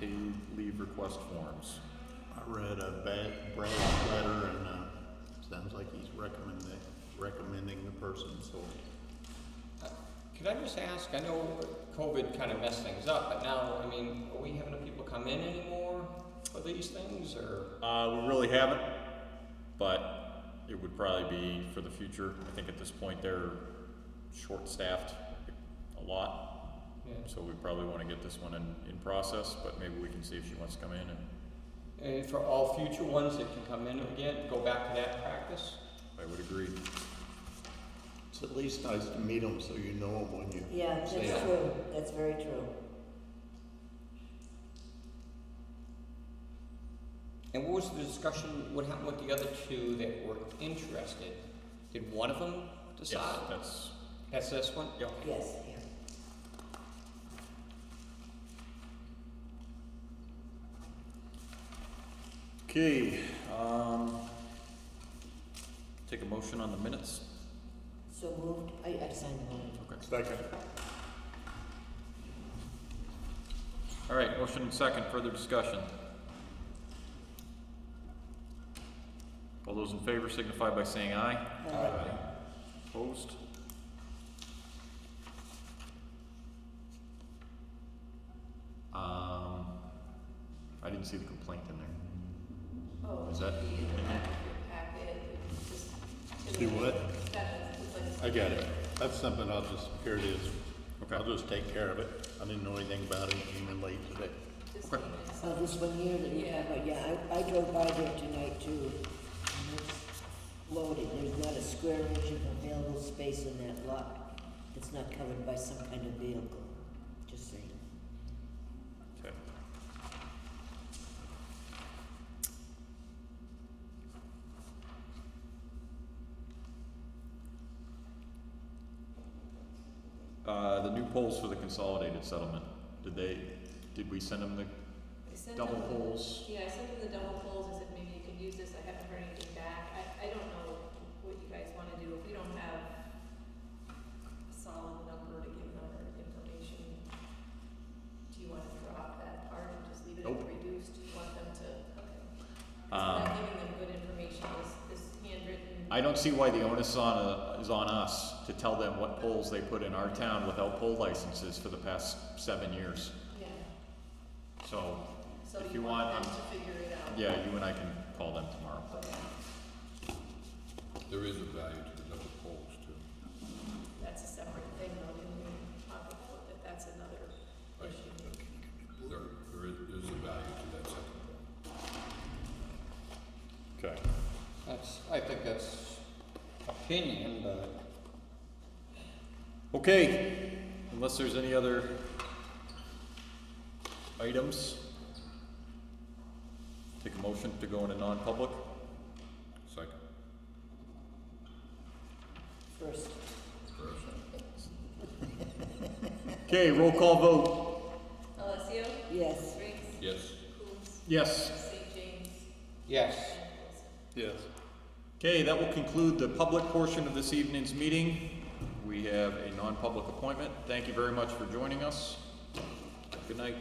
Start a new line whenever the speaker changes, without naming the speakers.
paid leave request forms.
I read a bad Brad's letter and, uh, sounds like he's recommending, recommending the person, so.
Could I just ask, I know COVID kind of messed things up, but now, I mean, are we having people come in anymore for these things, or?
Uh, we really haven't, but it would probably be for the future. I think at this point they're short-staffed a lot,
Yeah.
so we probably want to get this one in, in process, but maybe we can see if she wants to come in and
And for all future ones that can come in again, go back to that practice?
I would agree.
It's at least nice to meet him, so you know him when you.
Yeah, that's
see 'em.
true, that's very true.
And what was the discussion, what happened with the other two that were interested? Did one of them
Yes,
decide?
that's,
That's this one?
Yep.
Yes, yeah.
okay, um, take a motion on the minutes.
So moved, I, I signed the one.
Okay.
Second.
All right, motion and second, further discussion. All those in favor signify by saying aye. Opposed? Um, I didn't see the complaint in there.
Oh,
Is that,
packet, just.
Do what?
That is, it's
I got it. That's something I'll just, here it is. I'll
okay,
just take care of it. I didn't know anything about it, He came in late today.
like, just
Okay.
need to sign.
Oh, this one here that you have, yeah, I, I drove by there tonight too. And it's Loaded, there's not a square inch of available space in that lot. It's not covered by some kind of vehicle, just saying.
okay. Uh, the new polls for the consolidated settlement, did they, did we send them the
I sent
double
him-
polls?
Yeah, I sent him the double polls, I said maybe you could use this, I haven't heard anything back, I, I don't know what you guys wanna do, if we don't have a solid number to give them or information, do you wanna drop that part and just leave it
Nope.
reduced, do you want them to, okay. So
Um,
not giving them good information, is, is handwritten.
I don't see why the onus on, uh, is on us to tell them what polls they put in our town without poll licenses for the past seven years.
Yeah,
So,
so
If
you
you
want
want, um,
them to figure it out.
yeah, you and I can call them tomorrow.
Okay,
There is a value to the double poles too.
that's a separate thing, though, didn't we talk about that, that's another
Right.
issue.
There, there is, there's a value to that second pole.
Okay.
That's, I think that's opinion, but.
Okay, unless there's any other items, take a motion to go into non-public.
Second,
First,
first.
Okay, roll call vote.
Alessio,
yes,
Riggs,
Yes.
Coombs,
Yes.
St. James,
Yes.
and Wilson.
Yes.
Okay, that will conclude the public portion of this evening's meeting. We have a non-public appointment. Thank you very much for joining us. Good night.